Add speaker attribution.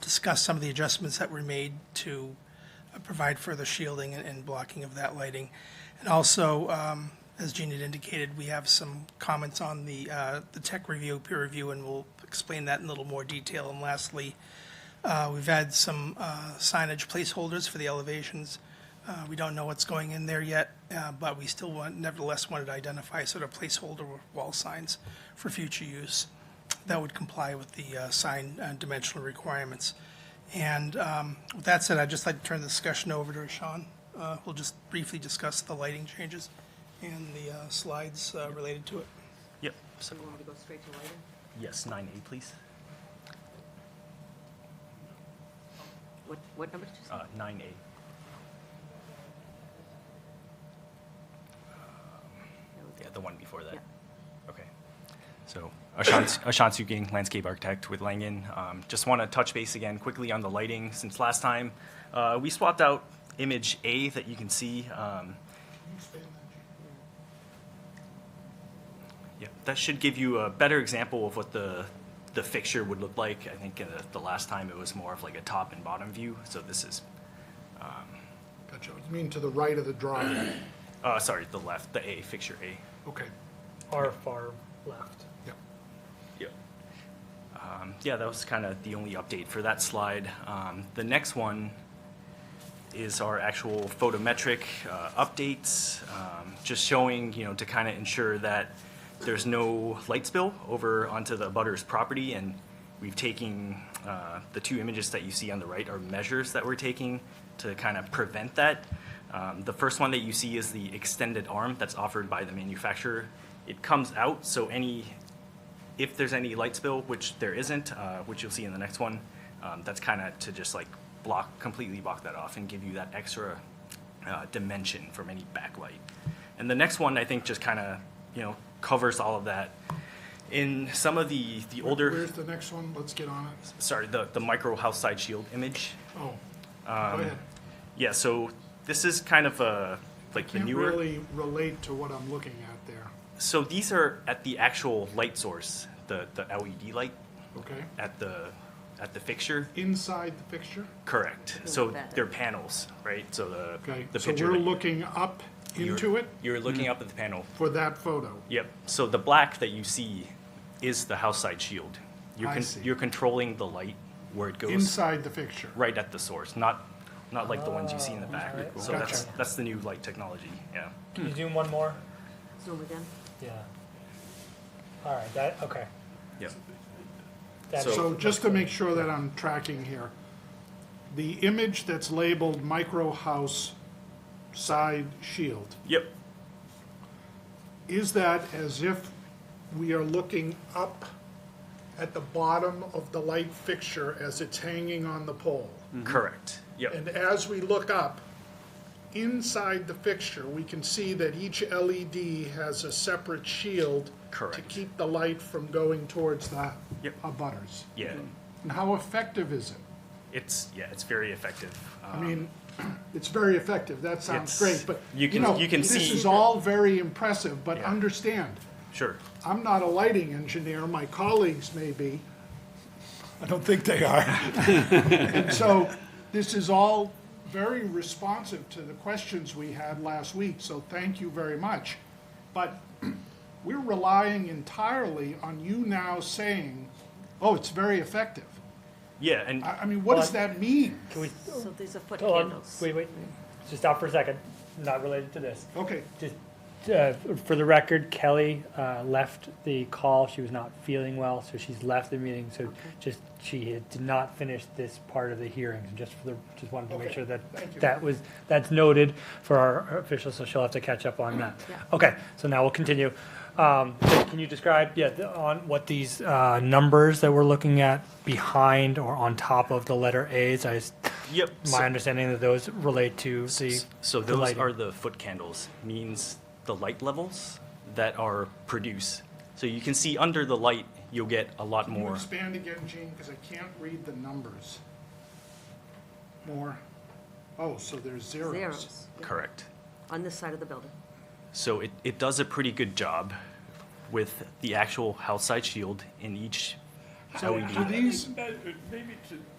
Speaker 1: discuss some of the adjustments that were made to uh, provide further shielding and- and blocking of that lighting. And also, um, as Jean had indicated, we have some comments on the, uh, the tech review, peer review, and we'll explain that in a little more detail. And lastly, uh, We've had some uh, signage placeholders for the elevations. Uh, We don't know what's going in there yet, uh, but we still want, nevertheless wanted to identify sort of placeholder wall signs for future use that would comply with the uh, sign uh, dimensional requirements. And um, with that said, I'd just like to turn the discussion over to Sean, uh, who'll just briefly discuss the lighting changes and the uh, slides uh, related to it.
Speaker 2: Yep,
Speaker 3: So you want to go straight to lighting?
Speaker 2: yes, nine A, please.
Speaker 3: What, what number did you say?
Speaker 2: Uh, nine A.
Speaker 3: There we
Speaker 2: Yeah,
Speaker 3: go.
Speaker 2: the one before that.
Speaker 3: Yeah.
Speaker 2: Okay. So Ashant Ashant Suking, landscape architect with Langen. Um, Just want to touch base again quickly on the lighting since last time. uh, We swapped out image A that you can see. um, Yeah, that should give you a better example of what the, the fixture would look like. I think uh, the last time it was more of like a top and bottom view, so this is,
Speaker 4: Gotcha. You mean to the right of the drawing?
Speaker 2: uh, sorry, the left, the A, fixture A.
Speaker 4: Okay,
Speaker 5: far, far left.
Speaker 4: yeah.
Speaker 2: Yep. Um, yeah, that was kind of the only update for that slide. Um, the next one is our actual photometric uh, updates, um, just showing, you know, to kind of ensure that there's no light spill over onto the butter's property. And we've taken uh, the two images that you see on the right are measures that we're taking to kind of prevent that. Um, the first one that you see is the extended arm that's offered by the manufacturer. It comes out, so any if there's any light spill, which there isn't, uh, which you'll see in the next one, um, that's kind of to just like block, completely block that off and give you that extra uh, dimension from any backlight. And the next one, I think, just kind of, you know, covers all of that. In some of the, the older,
Speaker 4: Where's the next one? Let's get on it.
Speaker 2: sorry, the, the micro house side shield image.
Speaker 4: Oh, go ahead.
Speaker 2: Yeah, so this is kind of a, like the
Speaker 4: Can't
Speaker 2: newer.
Speaker 4: really relate to what I'm looking at there,
Speaker 2: So these are at the actual light source, the, the LED light
Speaker 4: okay?
Speaker 2: at the, at the fixture.
Speaker 4: Inside the picture,
Speaker 2: Correct. So
Speaker 3: better.
Speaker 2: they're panels, right? So the,
Speaker 4: okay?
Speaker 2: the
Speaker 4: So
Speaker 2: picture.
Speaker 4: we're
Speaker 2: that you-
Speaker 4: looking up
Speaker 2: you're-
Speaker 4: into it Mm.
Speaker 2: You're looking up at the panel.
Speaker 4: for that photo.
Speaker 2: Yep. So the black that you see is the house side shield. You're
Speaker 4: I
Speaker 2: con-
Speaker 4: see.
Speaker 2: You're controlling the light where it goes
Speaker 4: Inside the picture.
Speaker 2: right at the source, not, not like the ones you see in the back.
Speaker 5: alright.
Speaker 2: So that's,
Speaker 4: Gotcha.
Speaker 2: that's the new light technology, yeah.
Speaker 5: Can you zoom one more?
Speaker 3: Zoom again?
Speaker 5: Yeah. All right, that, okay.
Speaker 2: Yep.
Speaker 5: That
Speaker 2: So-
Speaker 4: So just to make sure that I'm tracking here, the image that's labeled micro house side shield,
Speaker 2: Yep.
Speaker 4: Mm-hmm. is that as if we are looking up at the bottom of the light fixture as it's hanging on the pole?
Speaker 2: Mm. Correct. Yep.
Speaker 4: And as we look up, inside the fixture, we can see that each LED has a separate shield to
Speaker 2: Correct.
Speaker 4: keep the light from going towards the
Speaker 2: Yep.
Speaker 4: abutters.
Speaker 2: Yeah.
Speaker 4: And how effective is it?
Speaker 2: It's, yeah, it's very effective. Uh,
Speaker 4: I mean, it's very effective, that sounds
Speaker 2: Um, It's-
Speaker 4: great, but,
Speaker 2: you
Speaker 4: you
Speaker 2: can-
Speaker 4: know,
Speaker 2: you can
Speaker 4: this
Speaker 2: see-
Speaker 4: is all very impressive, but
Speaker 2: Yeah.
Speaker 4: understand,
Speaker 2: Sure.
Speaker 4: I'm not a lighting engineer, my colleagues may be. I don't think they are. And so, this is all very responsive to the questions we had last week, so thank you very much. But we're relying entirely on you now saying, oh, it's very effective.
Speaker 2: Yeah, and
Speaker 4: I, I mean, what does that mean?
Speaker 5: Can we,
Speaker 3: So these are foot
Speaker 5: hold on,
Speaker 3: candles.
Speaker 5: wait, wait, just stop for a second, not related to this.
Speaker 4: Okay,
Speaker 5: Just, uh, for the record, Kelly, uh, left the call, she was not feeling well, so she's left the meeting, so just, she had- did not finish this part of the hearing, just for the, just wanted to make
Speaker 4: Okay,
Speaker 5: sure that,
Speaker 4: thank you.
Speaker 5: that was, that's noted for our officials, so she'll have to catch up on that.
Speaker 3: Yeah.
Speaker 5: Okay, so now we'll continue. Um, so can you describe, yeah, the- on what these, uh, numbers that we're looking at behind or on top of the letter As, I, s-
Speaker 2: yep. so-
Speaker 5: my understanding that those relate to the.
Speaker 2: So
Speaker 5: the
Speaker 2: those
Speaker 5: lighting.
Speaker 2: are the foot candles, means the light levels that are produced. So you can see under the light, you'll get a lot
Speaker 4: Can you
Speaker 2: more.
Speaker 4: expand again, Gene, because I can't read the numbers. More. Oh, so there's zeros.
Speaker 3: Zeros.
Speaker 2: Correct.
Speaker 3: On this side of the building.
Speaker 2: So it, it does a pretty good job with the actual house side shield in each
Speaker 4: So
Speaker 2: LED.
Speaker 4: do these,
Speaker 6: Uh, Maybe to